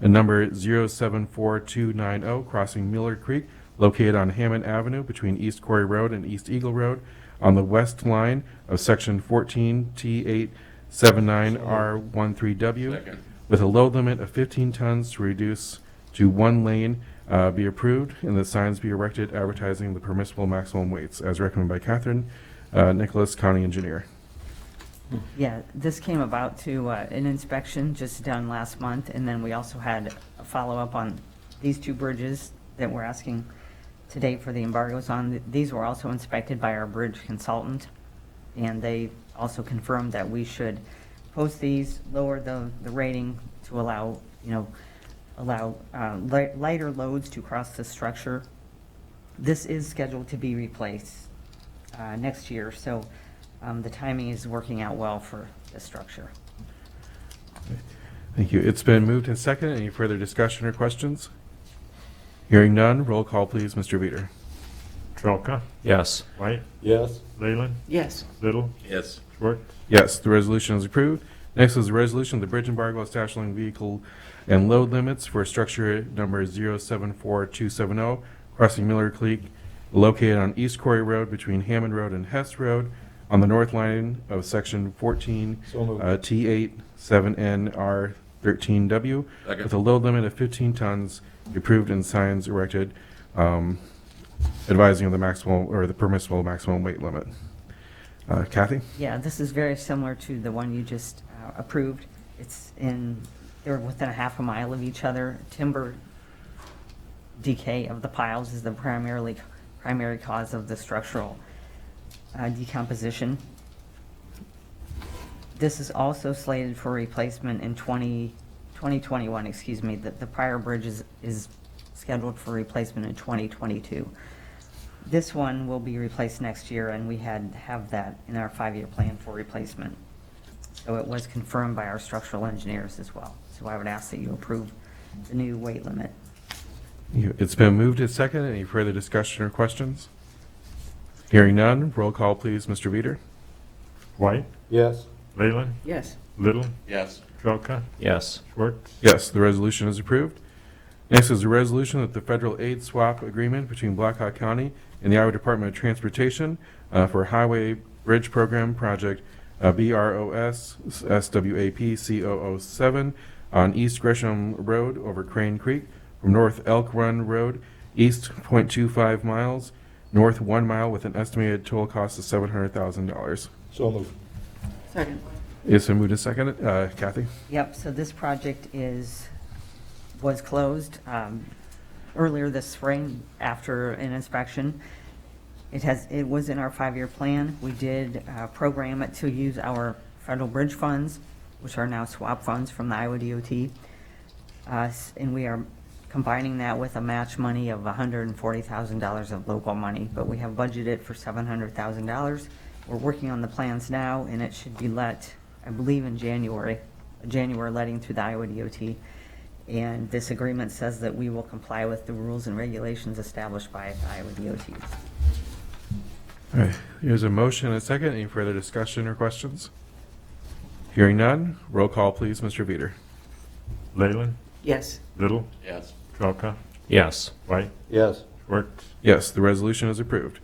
and number 074290, oh, crossing Miller Creek, located on Hammond Avenue between East Quarry Road and East Eagle Road, on the west line of Section 14T879R13W, with a load limit of 15 tons to reduce to one lane, uh, be approved, and the signs be erected advertising the permissible maximum weights, as recommended by Catherine uh, Nicholas, County Engineer. Yeah, this came about to uh, an inspection just done last month, and then we also had a follow-up on these two bridges that we're asking today for the embargoes on. These were also inspected by our bridge consultant, and they also confirmed that we should post these, lower the, the rating to allow, you know, allow uh, li- lighter loads to cross the structure. This is scheduled to be replaced uh, next year, so um, the timing is working out well for the structure. Thank you. It's been moved and seconded. Any further discussion or questions? Hearing none, roll call, please, Mr. Veeder. Trelka, Yes. White, Yes. Leyland, yes, Little, Yes. Schwartz, Yes, the resolution is approved. Next is the resolution of the bridge embargo establishing vehicle and load limits for structure number 074270, oh, crossing Miller Creek, located on East Quarry Road between Hammond Road and Hess Road, on the north line of Section uh, 14 So moved. T87NR13W, Second. with a load limit of 15 tons, approved and signs erected um, advising of the maximum, or the permissible maximum weight limit. Uh, Kathy? Yeah, this is very similar to the one you just uh, approved. It's in, they're within a half a mile of each other. Timber decay of the piles is the primarily, primary cause of the structural uh, decomposition. This is also slated for replacement in 20 2021, excuse me. The the prior bridge is is scheduled for replacement in 2022. This one will be replaced next year, and we had, have that in our five-year plan for replacement. So it was confirmed by our structural engineers as well. So I would ask that you approve the new weight limit. You- It's been moved and seconded. Any further discussion or questions? Hearing none, roll call, please, Mr. Veeder. White, Yes. Leyland, yes, Little, Yes. Trelka, Yes. Schwartz, Yes, the resolution is approved. Next is a resolution that the federal aid swap agreement between Blackhawk County and the Iowa Department of Transportation uh, for Highway Bridge Program Project uh, BROS SWAP 7 on East Gresham Road over Crane Creek from North Elk Run Road east .25 miles, north 1 mile with an estimated total cost of $700,000. So moved. second, It's been moved and seconded. Uh, Kathy? Yep, so this project is, was closed um, earlier this spring after an inspection. It has, it was in our five-year plan. We did uh, program it to use our federal bridge funds, which are now swap funds from the Iowa DOT. Uh, s- And we are combining that with a match money of $140,000 of local money, but we have budgeted for $700,000. We're working on the plans now, and it should be let, I believe, in January, a January letting through the Iowa DOT. And this agreement says that we will comply with the rules and regulations established by the Iowa DOT. All right, Here's a motion and a second. Any further discussion or questions? Hearing none, roll call, please, Mr. Veeder. Leyland, yes, Little, Yes. Trelka, Yes. White, Yes. Schwartz, Yes, the resolution is approved.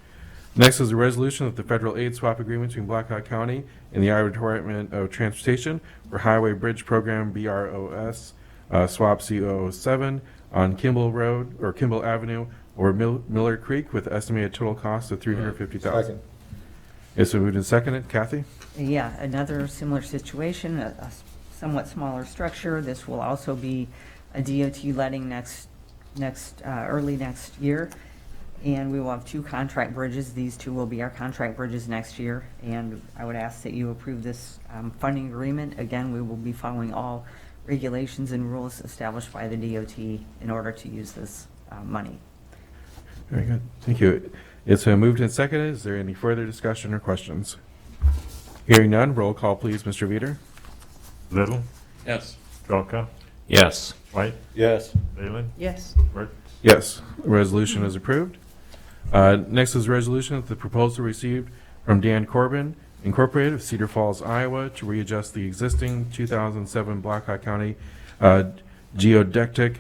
Next is a resolution of the federal aid swap agreement between Blackhawk County and the Iowa Department of Transportation for Highway Bridge Program, BROS, uh, swap C007 on Kimball Road, or Kimball Avenue, or Mil- Miller Creek with estimated total cost of $350,000. Second. It's been moved and seconded. Kathy? Yeah, another similar situation, a a s- somewhat smaller structure. This will also be a DOT letting next, next, uh, early next year. And we will have two contract bridges. These two will be our contract bridges next year. And I would ask that you approve this um, funding agreement. Again, we will be following all regulations and rules established by the DOT in order to use this uh, money. Very good. Thank you. It's been moved and seconded. Is there any further discussion or questions? Hearing none, roll call, please, Mr. Veeder. Little, Yes. Trelka, Yes. White, Yes. Leyland, yes, Schwartz, Yes, the resolution is approved. Uh, Next is resolution of the proposal received from Dan Corbin Incorporated of Cedar Falls, Iowa, to readjust the existing 2007 Blackhawk County uh, geodetic